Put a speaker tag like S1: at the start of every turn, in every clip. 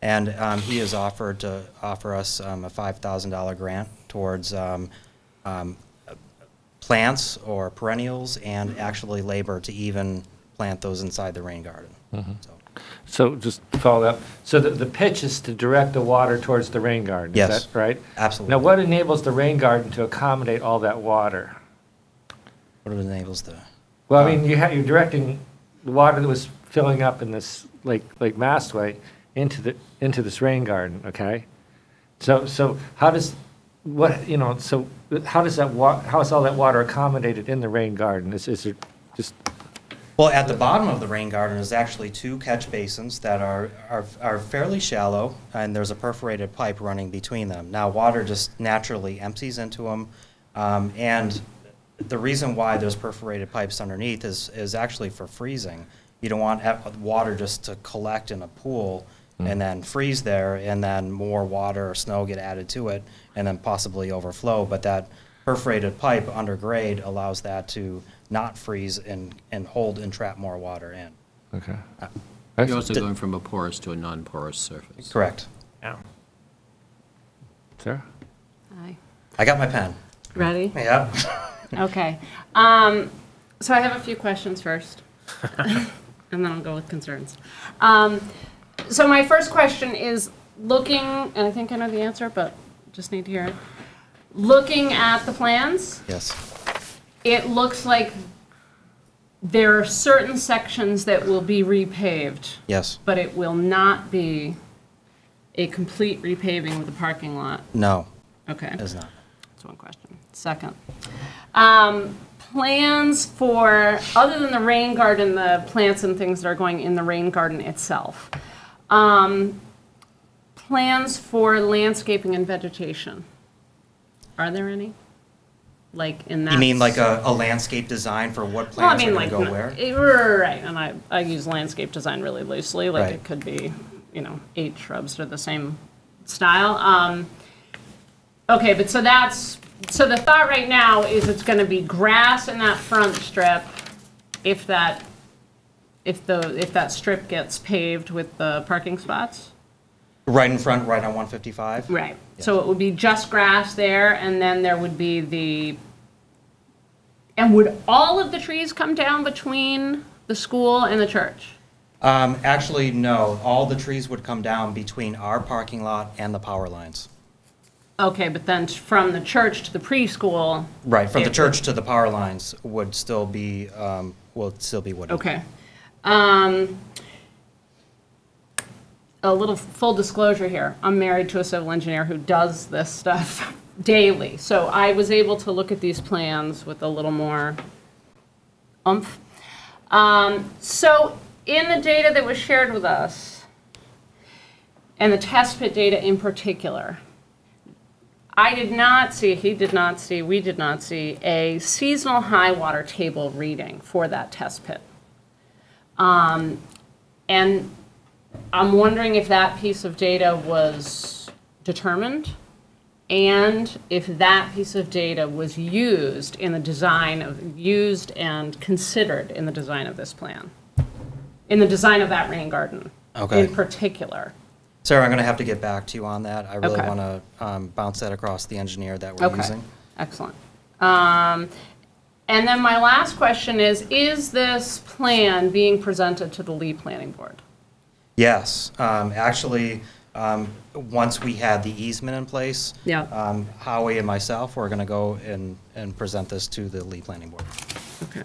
S1: And um, he has offered to offer us um, a $5,000 grant towards um, um, plants or perennials and actually labor to even plant those inside the rain garden.
S2: Mm-hmm.
S1: So,
S2: So just to follow up. So the, the pitch is to direct the water towards the rain garden.
S1: Yes.
S2: Is that right?
S1: Absolutely.
S2: Now, what enables the rain garden to accommodate all that water?
S1: What it enables the,
S2: Well, I mean, you ha you're directing the water that was filling up in this Lake, Lake Mastway into the, into this rain garden, okay? So, so how does, what, you know, so how does that wa, how is all that water accommodated in the rain garden? Is, is it just,
S1: well, at the bottom of the rain garden is actually two catch basins that are, are, are fairly shallow, and there's a perforated pipe running between them. Now, water just naturally empties into them, um, and the reason why there's perforated pipes underneath is, is actually for freezing. You don't want ep- water just to collect in a pool and then freeze there, and then more water or snow get added to it, and then possibly overflow. But that perforated pipe under grade allows that to not freeze and, and hold and trap more water in.
S2: okay?
S3: You're also
S1: Did-
S3: going from a porous to a non-porous surface.
S1: Correct.
S2: Sarah?
S4: Aye.
S1: I got my pen.
S4: Ready?
S1: Yeah.
S4: Okay. Um, so I have a few questions first, and then I'll go with concerns. Um, so my first question is looking, and I think I know the answer, but just need to hear it. Looking at the plans,
S1: Yes.
S4: it looks like there are certain sections that will be repaved,
S1: Yes.
S4: but it will not be a complete repaving with a parking lot.
S1: No,
S4: Okay.
S1: it's not.
S4: That's one question. Second, um, plans for, other than the rain garden, the plants and things that are going in the rain garden itself, um, plans for landscaping and vegetation. Are there any? Like in that?
S1: You mean like a, a landscape design for what
S4: Well, I
S1: plants are
S4: mean,
S1: going
S4: like,
S1: to go where?
S4: eh, right, and I, I use landscape design really loosely, like
S1: Right.
S4: it could be, you know, eight shrubs that are the same style. Um, okay, but so that's, so the thought right now is it's gonna be grass in that front strip if that, if the, if that strip gets paved with the parking spots?
S1: Right in front, right on 155?
S4: Right, so it would be just grass there, and then there would be the, and would all of the trees come down between the school and the church?
S1: Um, actually, no. All the trees would come down between our parking lot and the power lines.
S4: Okay, but then from the church to the preschool?
S1: Right, from the
S4: it-
S1: church to the power lines would still be, um, will still be wooded.
S4: Okay. Um, a little full disclosure here. I'm married to a civil engineer who does this stuff daily. So I was able to look at these plans with a little more umph. Um, so in the data that was shared with us, and the test pit data in particular, I did not see, he did not see, we did not see a seasonal high water table reading for that test pit. Um, And I'm wondering if that piece of data was determined and if that piece of data was used in the design of, used and considered in the design of this plan, in the design of that rain garden
S1: Okay.
S4: in particular.
S1: Sarah, I'm going to have to get back to you on that. I really
S4: Okay.
S1: want to um, bounce that across the engineer that we're
S4: Okay.
S1: using.
S4: Excellent. Um, And then my last question is, is this plan being presented to the Lee Planning Board?
S1: Yes, um, actually, um, once we had the easement in place,
S4: Yeah.
S1: um, Howie and myself were going to go and, and present this to the Lee Planning Board.
S4: Okay.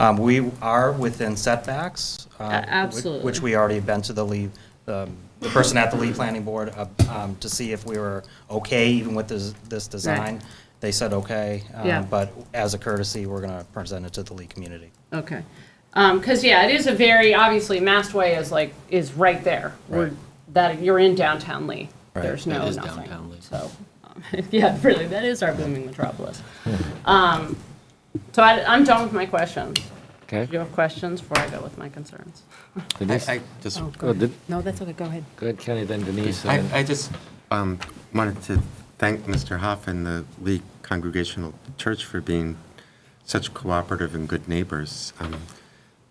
S1: Um, We are within setbacks. uh,
S4: A- absolutely.
S1: Which we already been to the lead, the the person at the lead planning board uh, um, to see if we were okay even with this, this design. They said okay. um,
S4: Yeah.
S1: But as a courtesy, we're going to present it to the lead community.
S4: Okay. Because, yeah, it is a very, obviously, Mastway is like, is right there. We're-
S1: Right.
S4: That, you're in downtown Lee.
S1: Right.
S4: There's no
S3: That is
S4: nothing.
S3: downtown Lee.
S4: So, um, yeah, really, that is our booming metropolis. Um, So I- I'm done with my questions. Do you
S2: Okay.
S4: have questions before I go with my concerns?
S2: Denise?
S5: I I just,
S2: Oh, did-
S6: No, that's okay, go ahead.
S2: Go ahead, Kenny, then Denise.
S5: I,
S2: and then-
S5: I just um, wanted to thank Mr. Hoff and the Lee Congregational Church for being such cooperative and good neighbors. Um,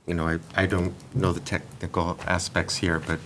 S5: You know, I, I don't know the technical aspects here, but